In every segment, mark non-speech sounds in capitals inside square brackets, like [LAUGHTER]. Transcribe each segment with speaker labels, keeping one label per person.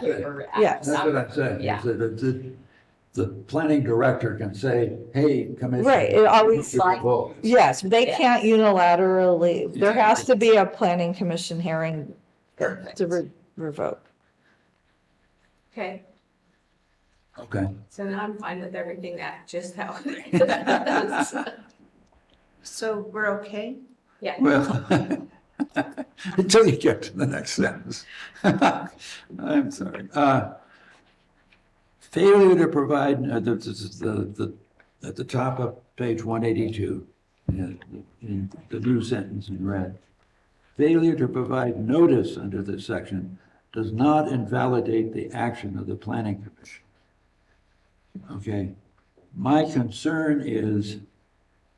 Speaker 1: Good.
Speaker 2: or
Speaker 3: Yeah.
Speaker 2: after
Speaker 1: That's what
Speaker 2: summer.
Speaker 1: I'm saying,
Speaker 2: Yeah.
Speaker 1: is that it's, it- the planning director can say, hey, commission.
Speaker 3: Right, it always-
Speaker 1: you should vote."
Speaker 3: Yes, they
Speaker 2: Yeah.
Speaker 3: can't unilaterally, there
Speaker 1: Yeah.
Speaker 3: has to be a planning commission hearing
Speaker 2: Perfect.
Speaker 3: to re- revoke.
Speaker 2: Okay,
Speaker 1: Okay,
Speaker 2: so now I'm fine with everything that just [LAUGHS] happened.
Speaker 4: So we're okay?
Speaker 2: Yeah.
Speaker 1: well, [LAUGHS] until you get to the next sentence. [LAUGHS] I'm sorry. Uh, Failure to provide, uh, the, the, the, at the top of page one eighty-two, in the new sentence in red. Failure to provide notice under this section does not invalidate the action of the planning commission. Okay, my concern is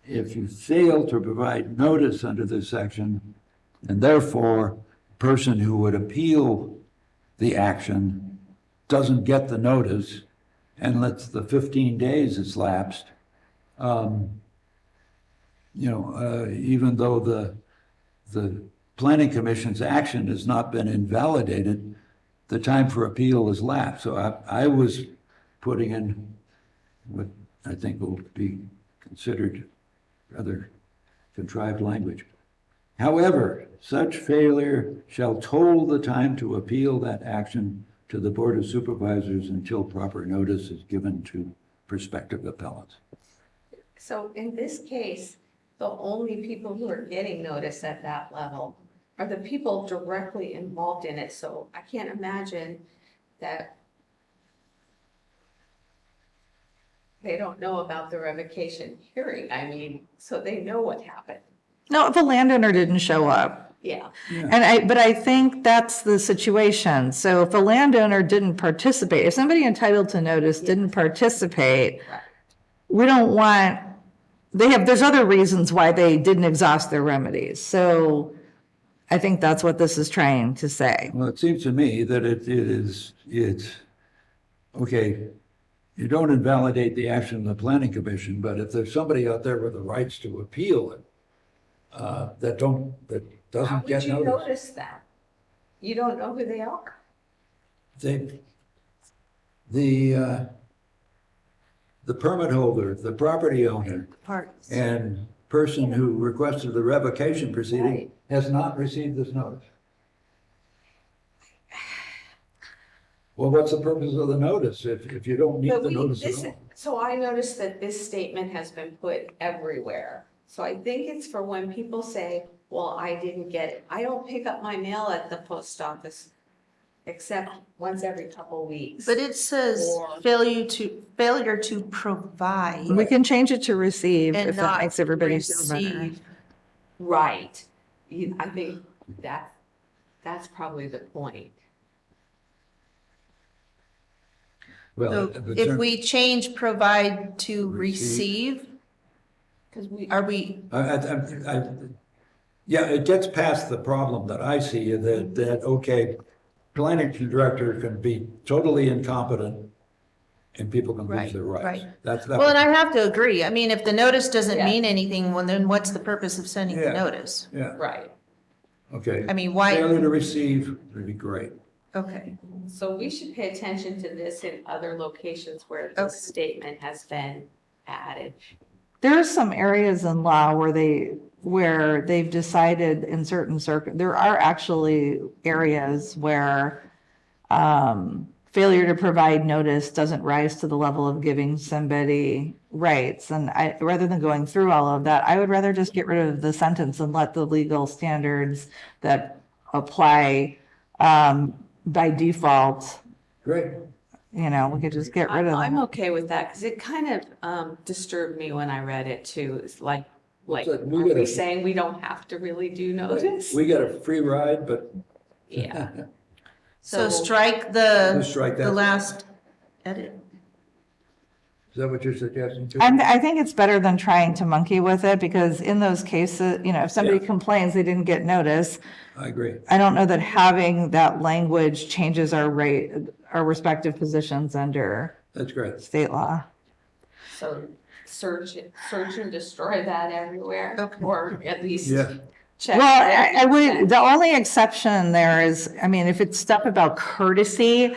Speaker 1: if you fail to provide notice under this section, and therefore, person who would appeal the action doesn't get the notice and lets the fifteen days has lapsed. um, You know, uh, even though the, the planning commission's action has not been invalidated, the time for appeal has lapsed. So I, I was putting in what I think will be considered rather contrived language. However, such failure shall toll the time to appeal that action to the Board of Supervisors until proper notice is given to prospective appellants.
Speaker 2: So in this case, the only people who are getting notice at that level are the people directly involved in it, so I can't imagine that they don't know about the revocation hearing, I mean, so they know what happened,
Speaker 3: No, if a landowner didn't show up,
Speaker 2: yeah.
Speaker 3: and I, but I think that's the situation. So if a landowner didn't participate, if somebody entitled to notice didn't participate,
Speaker 2: Right.
Speaker 3: we don't want, they have, there's other reasons why they didn't exhaust their remedies. So I think that's what this is trying to say.
Speaker 1: Well, it seems to me that it, it is, it's, okay, you don't invalidate the action of the planning commission, but if there's somebody out there with the rights to appeal it, uh, that don't, that
Speaker 2: How
Speaker 1: doesn't
Speaker 2: would
Speaker 1: get
Speaker 2: you
Speaker 1: notice,
Speaker 2: notice that? You don't know who they are.
Speaker 1: they, the, uh, the permit holder, the property owner,
Speaker 4: Parts.
Speaker 1: and person who requested the revocation proceeding
Speaker 2: Right.
Speaker 1: has not received this notice. Well, what's the purpose of the notice if, if you don't need
Speaker 2: But
Speaker 1: the
Speaker 2: we,
Speaker 1: notice
Speaker 2: this,
Speaker 1: at all?
Speaker 2: so I noticed that this statement has been put everywhere. So I think it's for when people say, well, I didn't get it. I don't pick up my mail at the post office except once every couple weeks.
Speaker 4: But it says
Speaker 2: Or-
Speaker 4: failure to, failure to provide
Speaker 3: We can change it to receive
Speaker 4: and
Speaker 3: if that
Speaker 4: not
Speaker 3: makes everybody feel better.
Speaker 4: receive.
Speaker 2: Right. You- I think that, that's probably the point.
Speaker 1: Well,
Speaker 4: So
Speaker 1: the
Speaker 4: if
Speaker 1: term-
Speaker 4: we change provide to
Speaker 1: Receive.
Speaker 4: receive,
Speaker 2: Because we,
Speaker 4: are we,
Speaker 1: I, I, I, I- yeah, it gets past the problem that I see, that, that, okay, planning director can be totally incompetent and people can lose
Speaker 4: Right,
Speaker 1: their rights.
Speaker 4: right.
Speaker 1: That's, that.
Speaker 4: well, and I have to agree. I mean, if the notice doesn't
Speaker 2: Yeah.
Speaker 4: mean anything, well, then what's the purpose of sending the
Speaker 1: Yeah.
Speaker 4: notice?
Speaker 1: Yeah,
Speaker 2: right.
Speaker 1: okay.
Speaker 4: I mean, why,
Speaker 1: Failure to receive would be great.
Speaker 4: okay,
Speaker 2: So we should pay attention to this in other locations where
Speaker 4: Okay.
Speaker 2: this statement has been added.
Speaker 3: There are some areas in law where they, where they've decided in certain circ, there are actually areas where um, failure to provide notice doesn't rise to the level of giving somebody rights. And I, rather than going through all of that, I would rather just get rid of the sentence and let the legal standards that apply um, by default,
Speaker 1: Great.
Speaker 3: you know, we could just get rid of
Speaker 2: I- I'm
Speaker 3: them.
Speaker 2: okay with that because it kind of um, disturbed me when I read it too. It's like, like,
Speaker 1: like
Speaker 2: are
Speaker 1: we gotta-
Speaker 2: we saying we don't have to really do notice?
Speaker 1: We got a free ride, but
Speaker 2: [LAUGHS] Yeah.
Speaker 4: so
Speaker 2: So
Speaker 4: strike
Speaker 1: we'll
Speaker 4: the,
Speaker 1: strike
Speaker 4: the
Speaker 1: that.
Speaker 4: last edit.
Speaker 1: Is that what you're suggesting too?
Speaker 3: I'm, I think it's better than trying to monkey with it because in those cases, you know, if somebody complains they didn't get notice,
Speaker 1: I agree.
Speaker 3: I don't know that having that language changes our rate, our respective positions under
Speaker 1: That's great.
Speaker 3: state law.
Speaker 2: so search, it- search and destroy that everywhere,
Speaker 4: Okay.
Speaker 2: or at least
Speaker 1: Yeah.
Speaker 2: check.
Speaker 3: Well,
Speaker 2: that.
Speaker 3: I, I would, the only exception there is, I mean, if it's stuff about courtesy,